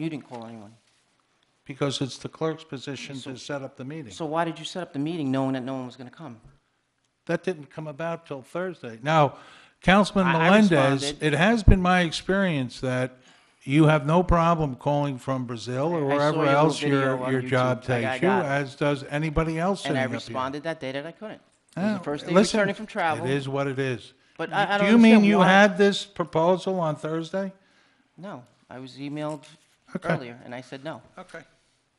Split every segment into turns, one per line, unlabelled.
You didn't call anyone.
Because it's the clerk's position to set up the meeting.
So why did you set up the meeting knowing that no one was going to come?
That didn't come about till Thursday. Now, Councilman
I- I
Melendez,
responded.
it has been my experience that you have no problem calling from Brazil or
I saw
wherever
your little
else
video
your,
on
your
YouTube.
job
I- I
takes you,
got it.
as does anybody else
And
sitting
I
up here.
responded that day that I couldn't. It was
Yeah,
the first day
listen,
returning from travel.
It is what it is.
But I- I don't
Do you mean
understand
you
why-
had this proposal on Thursday?
No, I was emailed
Okay.
earlier, and I said no.
Okay.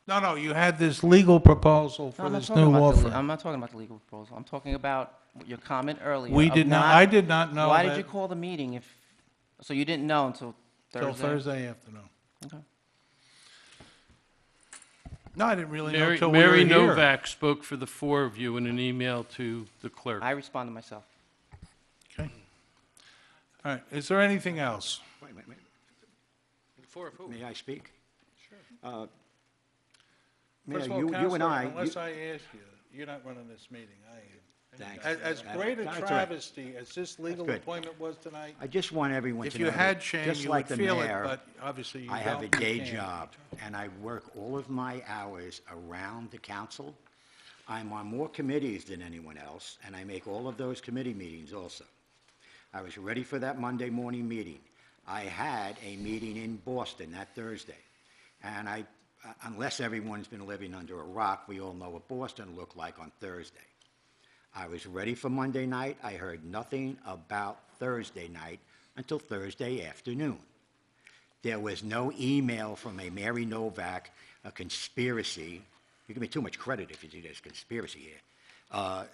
No, no, you had this legal proposal
No,
for
I'm not
this
talking
new
about
law
the le-
firm.
I'm not talking about the legal proposal. I'm talking about your comment earlier.
We
of
did not, I did not know
Why did
that
you call the meeting if, so you didn't know until Thursday?
till Thursday afternoon.
Okay.
No, I didn't really know
Mary,
till we were
Mary
here.
Novak spoke for the four of you in an email to the clerk.
I responded myself.
Okay. All right, is there anything else?
Wait, wait, wait. May I speak? Sure.
First of
Mayor,
all,
you, you and
Counselor,
I. you-
Unless I ask you, you're not running this meeting, I am.
Thanks.
As, as
That-
great a
that's all right.
travesty as this legal
good.
appointment was tonight,
I just want everyone
if
to know.
you
that
had shame,
just
you
like
would
the
feel it,
mayor,
but obviously you
I have a
don't, you
day
can't.
job, and I work all of my hours around the council. I'm on more committees than anyone else, and I make all of those committee meetings also. I was ready for that Monday morning meeting. I had a meeting in Boston that Thursday, and I, unless everyone's been living under a rock, we all know what Boston looked like on Thursday. I was ready for Monday night. I heard nothing about Thursday night until Thursday afternoon. There was no email from a Mary Novak, a conspiracy. You give me too much credit if you do this conspiracy here, uh,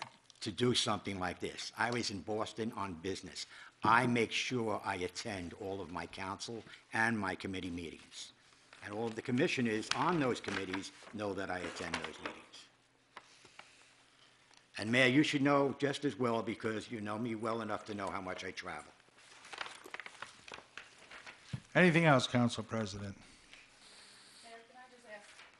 to do something like this. I was in Boston on business. I make sure I attend all of my council and my committee meetings. And all of the commissioners on those committees know that I attend those meetings. And Mayor, you should know just as well because you know me well enough to know how much I travel.
Anything else, Council President?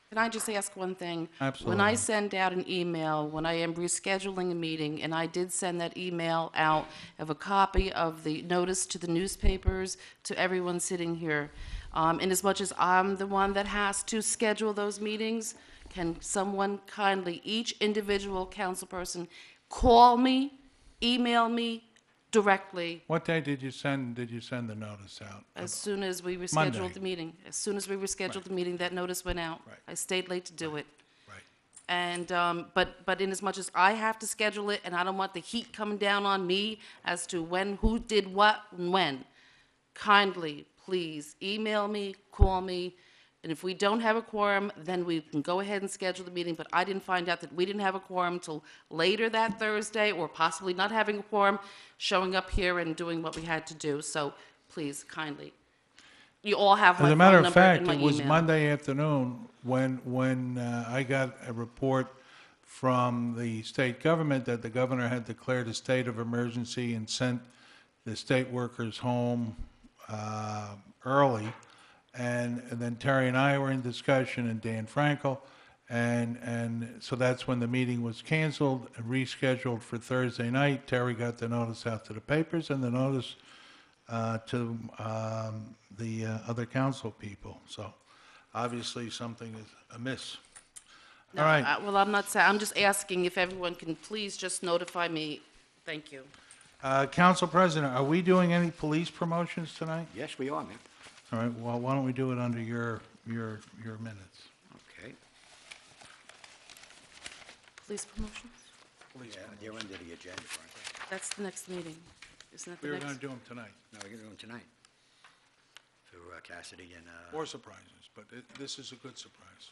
Can I just ask one thing? When
Absolutely.
I send out an email, when I am rescheduling a meeting, and I did send that email out of a copy of the notice to the newspapers, to everyone sitting here, um, and as much as I'm the one that has to schedule those meetings, can someone kindly, each individual council person, call me, email me directly
What day did you send, did you send the notice out?
Uh,
as soon as we
Monday.
rescheduled the meeting? As soon as we rescheduled the meeting, that notice went out.
Right.
I stayed late to do it.
Right.
And, um, but, but in as much as I have to schedule it, and I don't want the heat coming down on me as to when, who did what, and when, kindly, please, email me, call me, and if we don't have a quorum, then we can go ahead and schedule the meeting, but I didn't find out that we didn't have a quorum till later that Thursday, or possibly not having a quorum, showing up here and doing what we had to do, so please, kindly. You all have my
As a
phone
matter
number
of fact,
and my
it was
email.
Monday afternoon when, when uh, I got a report from the state government that the governor had declared a state of emergency and sent the state workers home uh, early. And, and then Terry and I were in discussion and Dan Frankel. And, and so that's when the meeting was canceled and rescheduled for Thursday night. Terry got the notice out to the papers and the notice uh, to um, the uh, other council people. So obviously, something is amiss. All right,
Uh, Well, I'm not saying, I'm just asking if everyone can please just notify me. Thank you.
Uh, Council President, are we doing any police promotions tonight?
Yes, we are, Mayor.
All right, well, why don't we do it under your, your, your minutes?
Okay.
Police promotions?
Yeah, they're under the agenda, aren't
That's the next meeting. Isn't that
We
the
were going
next?
to do them tonight,
they? No, we're doing tonight. For uh, Cassidy and, uh,
or surprises, but it- this is a good surprise.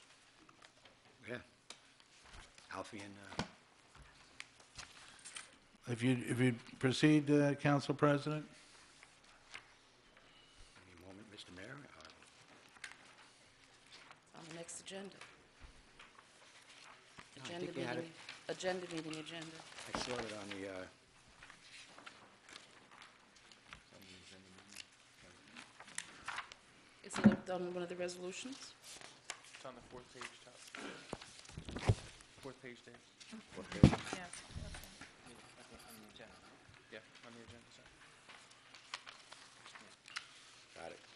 yeah. Alfie and, uh,
If you, if you proceed, uh, Council President?
give me a moment, Mr. Mayor. Uh,
On the next agenda.
No, I
Agenda
think we had
meeting, agenda meeting, agenda.
I saw it on the, uh,
Is it up on one of the resolutions?
It's on the fourth page, top. Fourth page, Dave. Fourth page? Yeah, on the agenda, sorry.
got it.